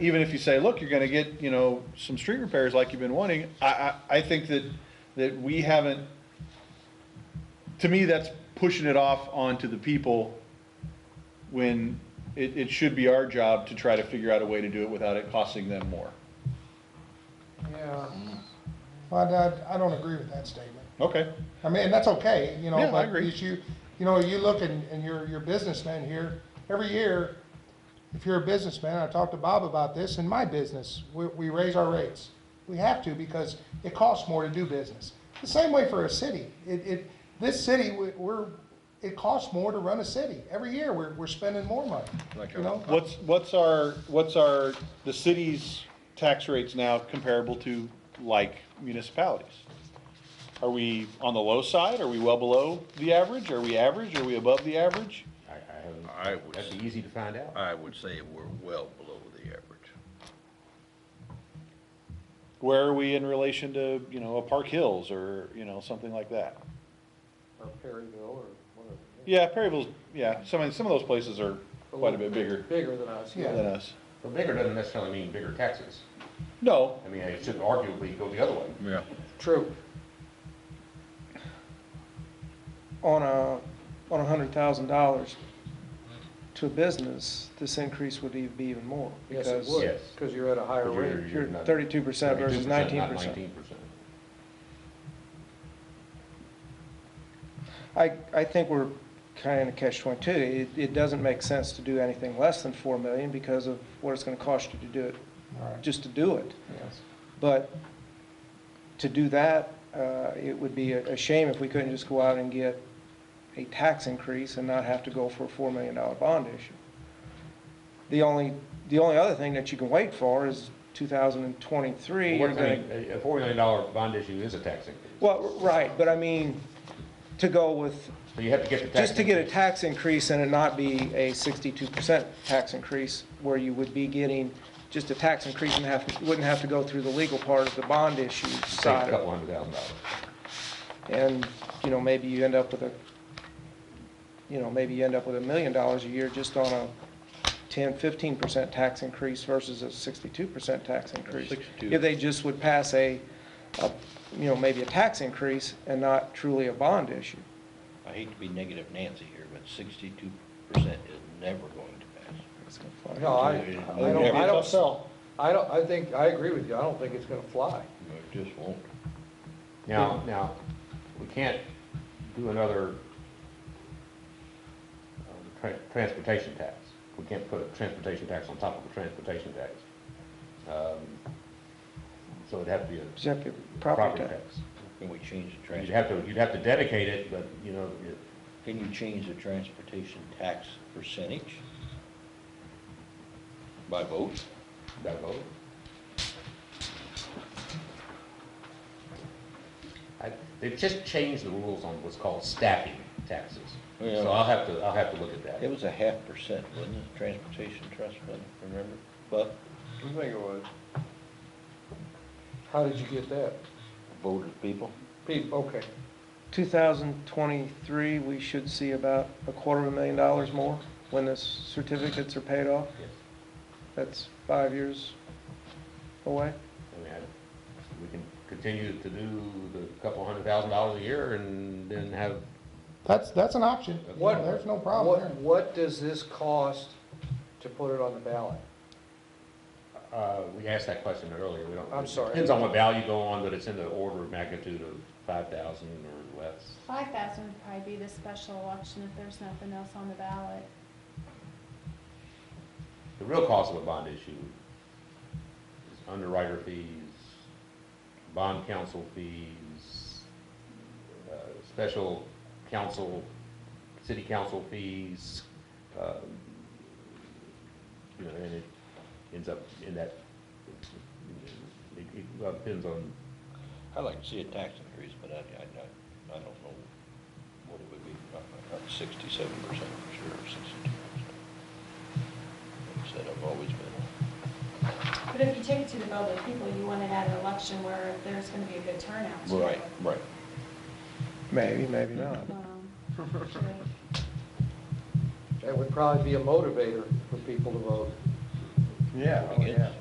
even if you say, look, you're gonna get, you know, some street repairs like you've been wanting, I, I, I think that, that we haven't, to me, that's pushing it off onto the people when it, it should be our job to try to figure out a way to do it without it costing them more. Yeah. Well, I, I don't agree with that statement. Okay, I mean, and that's okay, you know, Yeah, I but agree. if you, you know, you look and, and you're, you're a businessman here, every year, if you're a businessman, I talked to Bob about this, in my business, we, we raise our rates. We have to because it costs more to do business. The same way for a city, it, it, this city, we- we're, it costs more to run a city. Every year, we're, we're spending more money, you know? what's, what's our, what's our, the city's tax rates now comparable to like municipalities? Are we on the low side? Are we well below the average? Are we average? Are we above the average? I, I I haven't, would that's s- easy to find out. I would say we're well below the average. Where are we in relation to, you know, a Park Hills or, you know, something like that? or Perryville or whatever. Yeah, Perryville's, yeah, some, of- some of those places are quite a bit bigger Bigger than us, than yeah. us. But bigger doesn't necessarily mean bigger taxes. No, I mean, it should arguably go the other way. Yeah. True. on a, on a hundred thousand dollars to a business, this increase would even be even more. Yes, it because would, Yes. because you're at a higher But you're- rate. You're not- thirty-two percent versus 32%, nineteen not percent. 19%. I, I think we're kind of catch twenty-two. It, it doesn't make sense to do anything less than four million because of what it's gonna cost you to do it, Right. just to do it. Yes. But to do that, uh, it would be a a shame if we couldn't just go out and get a tax increase and not have to go for a $4 million bond issue. The only, the only other thing that you can wait for is 2023. Well, you're what- I gonna- mean, a a four million dollar bond issue is a tax increase. Well, right, but I mean, to go with, So you have to get the tax. just to get a increase. tax increase and it not be a 62% tax increase where you would be getting just a tax increase and have, wouldn't have to go through the legal part of the bond issue Save side a of it. couple hundred thousand dollars. And, you know, maybe you end up with a, you know, maybe you end up with a million dollars a year just on a 10, 15% tax increase versus a 62% tax increase. 62. If they just would pass a, a, you know, maybe a tax increase and not truly a bond issue. I hate to be negative Nancy here, but sixty-two percent is never going to pass. It's gonna fly. No, I, I don't, I don't, sell. I don't, I think, I agree with you, I don't think it's gonna fly. It just won't. Now, now, we can't do another uh, tra- transportation tax. We can't put a transportation tax on top of a transportation tax. Um, So it'd have to be a Except your property tax. Can we change the You'd trans, have to, you'd have to dedicate it, but, you know, it- can you change the transportation tax percentage? By vote? that vote. I- They've just changed the rules on what's called staffing taxes. Yeah. So I'll have to, I'll have to look at It that. was a half percent, wasn't it, transportation trust fund, remember? But I think it was. How did you get that? voted people, Pete, okay, 2023, we should see about a quarter of a million dollars more when the certificates are paid off. Yes. That's five years away. I mean, I- We can continue to do the couple hundred thousand dollars a year and then have, That's, that's an option. What- No, There's no problem what, there. what does this cost to put it on the ballot? uh, we asked that question earlier, we don't. I'm sorry. Depends on what value you go on, but it's in the order of magnitude of five thousand or less. Five thousand would probably be the special election if there's nothing else on the ballot. The real cost of a bond issue is underwriter fees, bond counsel fees, uh, special counsel, city council fees, um, you know, and it ends up in that, it it, well, depends on, I'd like to see a tax increase, but I, I, I- I don't know what it would be, not, not sixty-seven percent for sure, or sixty-two percent. Like I said, I've always been, But if you take it to the vote of the people, you want it at an election where there's gonna be a good turnout. too. right, right. Maybe, maybe not. Um, That would probably be a motivator for people to vote. Yeah, oh, yeah.